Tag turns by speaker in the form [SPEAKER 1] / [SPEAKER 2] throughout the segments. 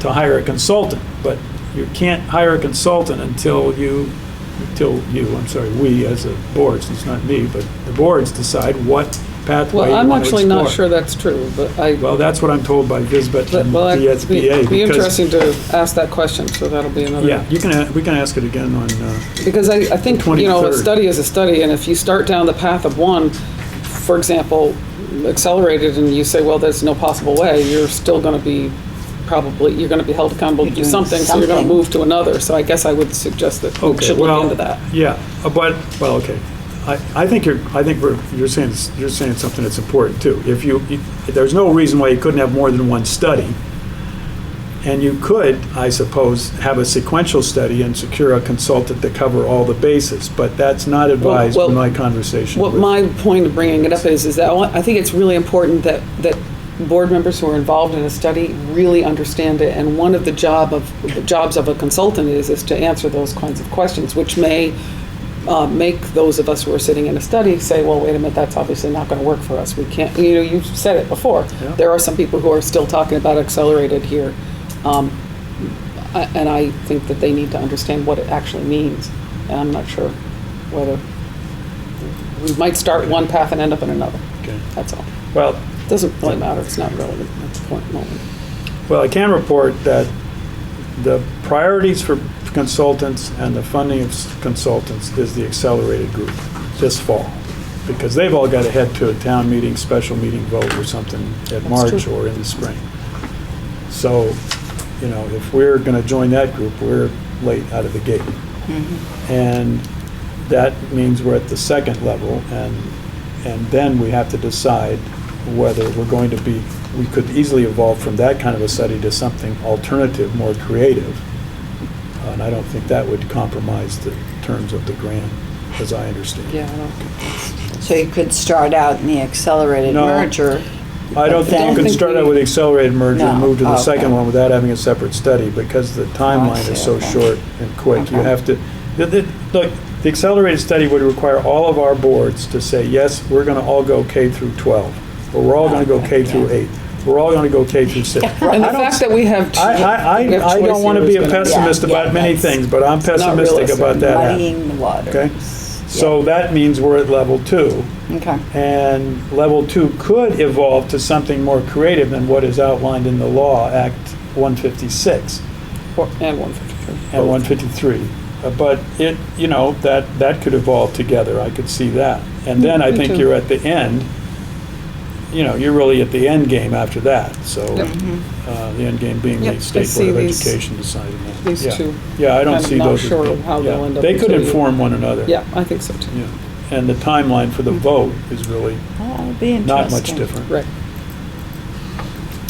[SPEAKER 1] to hire a consultant, but you can't hire a consultant until you, until you, I'm sorry, we as a board, it's not me, but the boards decide what pathway
[SPEAKER 2] Well,
[SPEAKER 1] you
[SPEAKER 2] I'm
[SPEAKER 1] want to
[SPEAKER 2] actually
[SPEAKER 1] explore.
[SPEAKER 2] not sure that's true, but I,
[SPEAKER 1] Well, that's what I'm told by Visbet
[SPEAKER 2] but,
[SPEAKER 1] and
[SPEAKER 2] well,
[SPEAKER 1] the
[SPEAKER 2] it'd be
[SPEAKER 1] SBA.
[SPEAKER 2] be
[SPEAKER 1] because-
[SPEAKER 2] interesting to ask that question, so that'll be another.
[SPEAKER 1] Yeah, you can, a- we can ask it again on, uh,
[SPEAKER 2] Because I, I think, you know, a
[SPEAKER 1] 23rd.
[SPEAKER 2] study is a study, and if you start down the path of one, for example, accelerated, and you say, well, there's no possible way, you're still gonna be probably, you're gonna be held accountable to do
[SPEAKER 3] You're doing
[SPEAKER 2] something, so you're gonna
[SPEAKER 3] something.
[SPEAKER 2] move to another. So I guess I would suggest that we
[SPEAKER 1] okay,
[SPEAKER 2] should look
[SPEAKER 1] well,
[SPEAKER 2] into that.
[SPEAKER 1] yeah, uh, but, well, okay. I, I think you're, I think we're, you're saying, you're saying something that's important too. If you, if- there's no reason why you couldn't have more than one study. And you could, I suppose, have a sequential study and secure a consultant to cover all the bases, but that's not advised
[SPEAKER 2] well,
[SPEAKER 1] in my conversation
[SPEAKER 2] What
[SPEAKER 1] with-
[SPEAKER 2] my point of bringing it up is, is that I want- I think it's really important that, that board members who are involved in a study really understand it. And one of the job of, the jobs of a consultant is, is to answer those kinds of questions, which may uh, make those of us who are sitting in a study say, well, wait a minute, that's obviously not going to work for us. We can't, you know, you said it before.
[SPEAKER 1] Yeah.
[SPEAKER 2] There are some people who are still talking about accelerated here. Um, I- And I think that they need to understand what it actually means. And I'm not sure whether, we might start one path and end up in another.
[SPEAKER 1] Okay.
[SPEAKER 2] That's all.
[SPEAKER 1] Well,
[SPEAKER 2] Doesn't really matter. It's not relevant at the point moment.
[SPEAKER 1] Well, I can report that the priorities for consultants and the funding of s- consultants is the accelerated group this fall, because they've all got to head to a town meeting, special meeting vote or something at March
[SPEAKER 2] true.
[SPEAKER 1] or in the spring. So, you know, if we're going to join that group, we're late out of the gate. And that means we're at the second level, and, and then we have to decide whether we're going to be, we could easily evolve from that kind of a study to something alternative, more creative. And I don't think that would compromise the terms of the grant, as I understand.
[SPEAKER 2] Yeah, I don't,
[SPEAKER 3] So you could start out in the accelerated
[SPEAKER 1] No.
[SPEAKER 3] merger.
[SPEAKER 1] I don't think
[SPEAKER 3] I
[SPEAKER 1] you
[SPEAKER 3] don't
[SPEAKER 1] can
[SPEAKER 2] think
[SPEAKER 1] start
[SPEAKER 2] we-
[SPEAKER 1] out with accelerated merger and
[SPEAKER 3] No,
[SPEAKER 1] move to the
[SPEAKER 3] okay.
[SPEAKER 1] second one without having a separate study, because the timeline
[SPEAKER 3] see,
[SPEAKER 1] is so
[SPEAKER 3] okay.
[SPEAKER 1] short and quick. You
[SPEAKER 3] Okay.
[SPEAKER 1] have to, the- the- look, the accelerated study would require all of our boards to say, yes, we're going to all go K through 12, or we're all going to go K through 8, we're all going to go K through 6.
[SPEAKER 2] and
[SPEAKER 1] I
[SPEAKER 2] the
[SPEAKER 1] don't
[SPEAKER 2] fact that we have.
[SPEAKER 1] I, I,
[SPEAKER 2] we have
[SPEAKER 1] I- I
[SPEAKER 2] choice
[SPEAKER 1] don't want to
[SPEAKER 2] here
[SPEAKER 1] be
[SPEAKER 2] is
[SPEAKER 1] a
[SPEAKER 2] gonna-
[SPEAKER 1] pessimist
[SPEAKER 3] yeah,
[SPEAKER 1] about many
[SPEAKER 3] that's
[SPEAKER 1] things, but I'm pessimistic
[SPEAKER 2] realistic.
[SPEAKER 1] about that. happening,
[SPEAKER 3] Muddying the waters.
[SPEAKER 1] Okay? So that means we're at level two.
[SPEAKER 3] Okay.
[SPEAKER 1] And level two could evolve to something more creative than what is outlined in the law, Act 156
[SPEAKER 2] Or- And 153.
[SPEAKER 1] and 153. Uh, But it, you know, that, that could evolve together, I could see that. And then I
[SPEAKER 2] me
[SPEAKER 1] think
[SPEAKER 2] too.
[SPEAKER 1] you're at the end, you know, you're really at the end game after that, so,
[SPEAKER 2] Yep.
[SPEAKER 1] uh, the end game being
[SPEAKER 2] Yep,
[SPEAKER 1] the
[SPEAKER 2] I
[SPEAKER 1] State
[SPEAKER 2] see
[SPEAKER 1] Board of
[SPEAKER 2] these-
[SPEAKER 1] Education deciding that.
[SPEAKER 2] these
[SPEAKER 1] Yeah.
[SPEAKER 2] two.
[SPEAKER 1] Yeah, I don't
[SPEAKER 2] I'm
[SPEAKER 1] see
[SPEAKER 2] not
[SPEAKER 1] those. as
[SPEAKER 2] sure
[SPEAKER 1] being-
[SPEAKER 2] how they'll
[SPEAKER 1] yeah.
[SPEAKER 2] end up
[SPEAKER 1] They could
[SPEAKER 2] until you-
[SPEAKER 1] inform one another.
[SPEAKER 2] Yeah, Hmm. I think so too.
[SPEAKER 1] Yeah. And the timeline for the vote is really
[SPEAKER 3] That would be interesting.
[SPEAKER 1] not much different.
[SPEAKER 2] Right.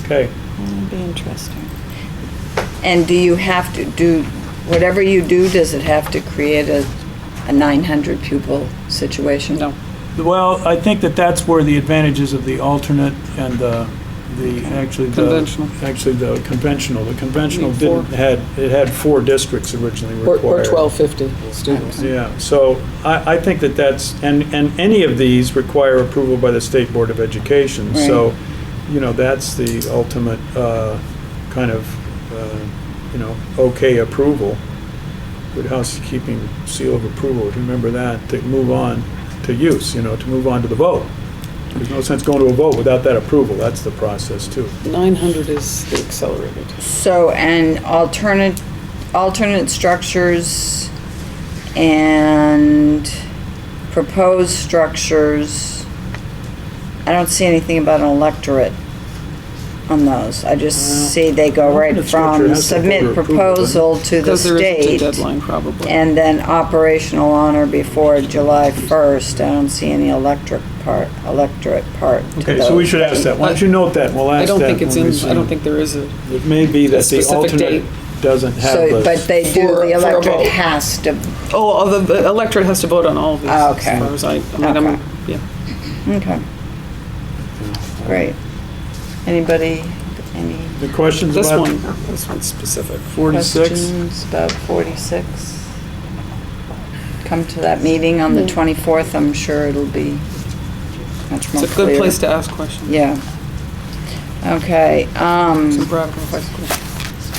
[SPEAKER 1] Okay.
[SPEAKER 3] That would be interesting. And do you have to do, whatever you do, does it have to create a, a 900 pupil situation?
[SPEAKER 2] No.
[SPEAKER 1] Well, I think that that's where the advantages of the alternate and the, the, actually the.
[SPEAKER 2] Conventional.
[SPEAKER 1] Actually, the conventional. The conventional
[SPEAKER 2] Need four.
[SPEAKER 1] didn't, had, it had four districts originally
[SPEAKER 2] Or,
[SPEAKER 1] required.
[SPEAKER 2] or 1250 students.
[SPEAKER 1] Yeah, so I, I think that that's, and, and any of these require approval by the State Board of Education. So, you know, that's the ultimate uh, kind of, uh, you know, okay approval. Good housekeeping seal of approval, remember that, to move on to use, you know, to move on to the vote. There's no sense going to a vote without that approval, that's the process too.
[SPEAKER 2] 900 is the accelerated.
[SPEAKER 3] So, and alternate, alternate structures and proposed structures. I don't see anything about an electorate on those. I
[SPEAKER 1] Well,
[SPEAKER 3] just see they go right
[SPEAKER 1] alternate structure
[SPEAKER 3] from
[SPEAKER 1] has to go
[SPEAKER 3] submit
[SPEAKER 1] to approval, doesn't it?
[SPEAKER 3] proposal to the
[SPEAKER 2] Because there isn't a
[SPEAKER 3] state
[SPEAKER 2] deadline probably.
[SPEAKER 3] and then operational honor before July first. I don't see any electric part, electorate part to
[SPEAKER 1] Okay, so we
[SPEAKER 3] those.
[SPEAKER 1] should ask that, why don't you note that, we'll
[SPEAKER 2] I
[SPEAKER 1] ask that.
[SPEAKER 2] don't think it's
[SPEAKER 1] when
[SPEAKER 2] in,
[SPEAKER 1] we
[SPEAKER 2] I
[SPEAKER 1] see-
[SPEAKER 2] don't think there is a,
[SPEAKER 1] It may be that the
[SPEAKER 2] specific
[SPEAKER 1] alternate
[SPEAKER 2] date.
[SPEAKER 1] doesn't have
[SPEAKER 3] So,
[SPEAKER 1] the.
[SPEAKER 3] but they do,
[SPEAKER 2] For- for
[SPEAKER 3] the
[SPEAKER 2] a vote.
[SPEAKER 3] electorate has to,
[SPEAKER 2] oh, the- the electorate has to vote on all of these.
[SPEAKER 3] Ah, okay.
[SPEAKER 2] As far as I, I mean, I'm,
[SPEAKER 3] Okay.
[SPEAKER 2] yeah.
[SPEAKER 3] okay. Great. Anybody, any
[SPEAKER 1] The questions
[SPEAKER 2] This
[SPEAKER 1] about
[SPEAKER 2] one, this one's specific.
[SPEAKER 1] 46?
[SPEAKER 3] questions about forty-six? Come to that meeting on the twenty-fourth, I'm sure it'll be much more
[SPEAKER 2] It's
[SPEAKER 3] clear.
[SPEAKER 2] a good place to ask questions.
[SPEAKER 3] Yeah. Okay, um.
[SPEAKER 2] Some practical questions.